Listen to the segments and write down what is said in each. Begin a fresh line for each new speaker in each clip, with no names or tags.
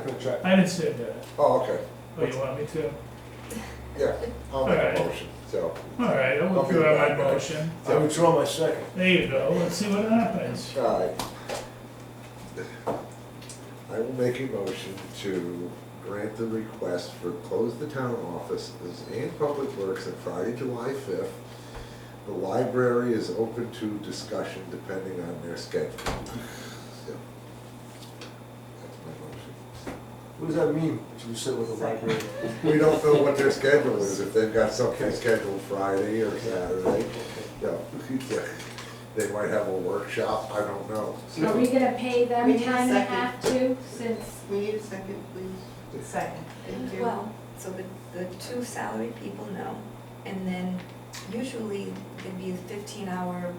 contract?
I understand that.
Oh, okay,
Oh, you want me to?
yeah, I'll make
Alright.
a motion, so,
All right, I'll
I'll be
withdraw my
back, guys.
motion.
I withdraw my second.
There you go, let's see what happens.
alright. I will make a motion to grant the request for close the town offices and public works on Friday, July fifth. The library is open to discussion depending on their schedule. So, That's my motion.
What does that mean, that you said with the library?
We don't know what their schedule is, if they've got something
Okay.
scheduled Friday or Saturday. Yeah, they might have a workshop, I don't know.
Are we gonna pay them
We need a
time and a
second.
half too, since,
We need a second, please.
Second.
Thank you.
Well, so the, the two salary people know, and then usually it'd be a fifteen hour,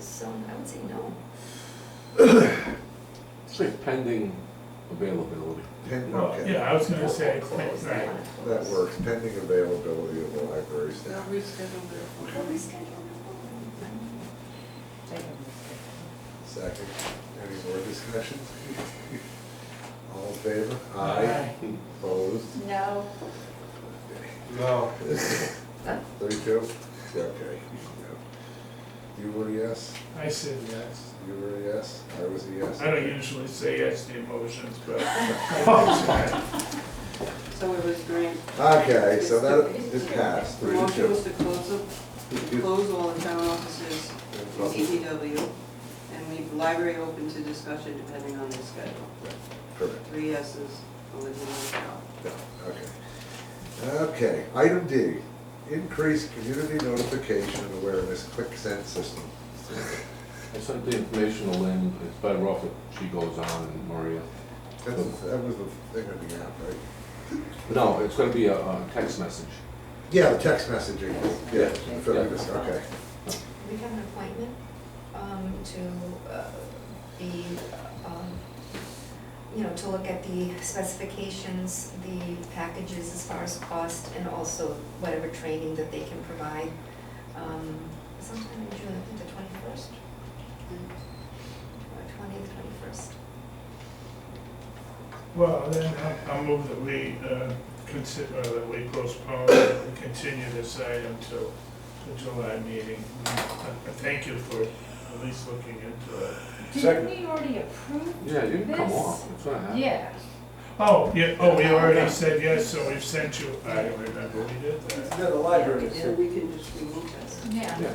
so I would say no.
Say pending availability.
Pen-
Well,
okay.
yeah, I was gonna say,
Close, they
right,
wanna
That
close.
works, pending availability of the library
They'll
staff.
reschedule
Well,
their.
we schedule it.
Second, any more discussion? All in favor?
Aye.
Opposed?
no,
No.
Thirty-two? Okay. yeah. You were a yes,
I said yes.
you were a yes, I was a yes.
I don't usually say yes to emotions, but.
So it was grant.
Okay, so that is passed,
The
three to
motion was
two.
to close, the- close all the town offices, CPW, and leave the library open to discussion depending on the schedule.
Correct.
Three yeses, Olivia Michelle.
No, okay. Okay, item D, increase community notification and awareness, quick send system.
I sent the information to Lynn, it's better off if she goes on and Maria.
That's, that was the thing on the app, right?
No, it's gonna be a, a text message.
Yeah, the text messaging, yeah, for this, okay.
We have an appointment, um, to, uh, be, um, you know, to look at the specifications, the packages as far as cost, and also whatever training that they can provide, um, sometime in June, I think the twenty-first, or twentieth, twenty-first.
Well, then I- I'll move that we uh, consider, that we postpone, and continue this item till the July meeting. Uh, Thank you for at least looking into it.
Second.
didn't we already approve?
Yeah, you can come
This-
off, it's gonna happen.
Yeah,
Oh, yeah, oh, we already said yes, so we've sent you, I remember we did
It's
that.
not a library, it's
And
a-
we can just remove that.
yeah.
Yeah.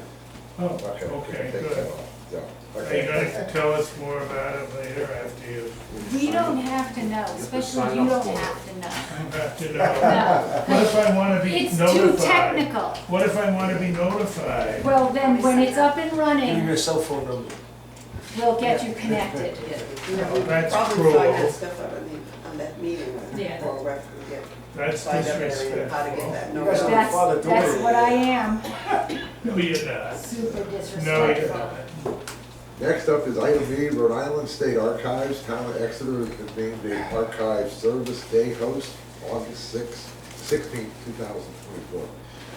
Oh,
Okay, we
okay,
can take that
good.
off. Yeah,
Are you
okay.
gonna tell us more about it later after you,
We don't have to know, especially you
sign up
don't
for it.
have to know.
after know?
No,
What if I wanna be
it's too
notified?
technical.
What if I wanna be notified?
Well, then, when it's up and
give me
running,
your cell phone number.
we'll get you connected.
You know,
Oh,
we
that's
Probably find
cruel.
that stuff out on the, on that meeting, or,
Yeah.
or reference, yeah,
That's
find out everything, how to get
disrespectful.
that
You
note.
guys
out.
don't
That's,
Father, don't
that's
worry.
what I am,
No, you're not.
super
No, you're
disrespectful.
not.
Next up is item B, Rhode Island State Archives, Town of Exeter has named the Archive Service Day host, August sixth, sixteenth, two thousand twenty-four.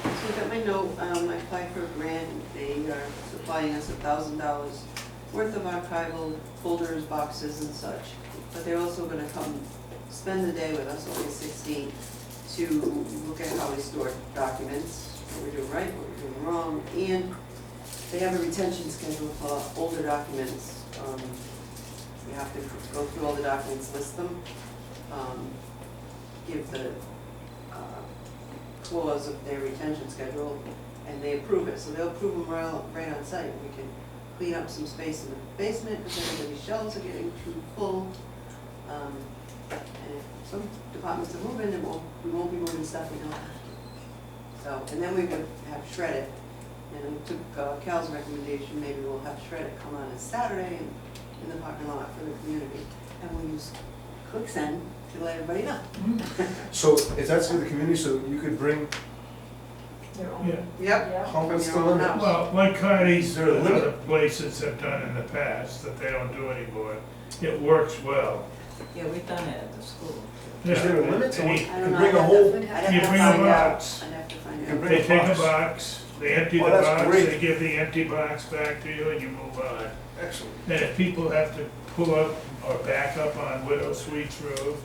So you got my note, um, I applied for a grant, they are supplying us a thousand dollars worth of archival folders, boxes and such. But they're also gonna come spend the day with us on the sixteenth to look at how we store documents, what we're doing right, what we're doing wrong. And they have a retention schedule for older documents. Um, we have to go through all the documents, list them, um, give the, uh, clause of their retention schedule, and they approve it, so they'll approve them right, on- right on site. We can clean up some space in the basement, because everybody's shelves are getting too full. Um, And if some departments are moving, then we'll, we won't be moving stuff we don't have to. So, and then we would have shred it, and we took uh, Cal's recommendation, maybe we'll have shred it come on a Saturday in, in the parking lot for the community, and we'll use quicksand to let everybody know.
So if that's for the community, so you could bring,
Your own.
Yeah.
Yep.
Yeah.
how much the
Your own
limit?
house.
Well, like Cardi's
Is there a
and
limit?
other places have done in the past that they don't do anymore, it works well.
Yeah, we've done it at the school.
Is there a
Yeah,
limit to
they-
what,
I
you
don't
could
know.
bring a
I'd
whole,
have to-
You
I'd have to
bring a
find out.
box.
I'd have to
you
find
could
out.
bring
They
a
take a
box.
box, they empty the
Oh, that's
box,
great.
they give the empty box back to you and you move on.
Excellent.
And if people have to pull up or back up on Widow Sweet's Road,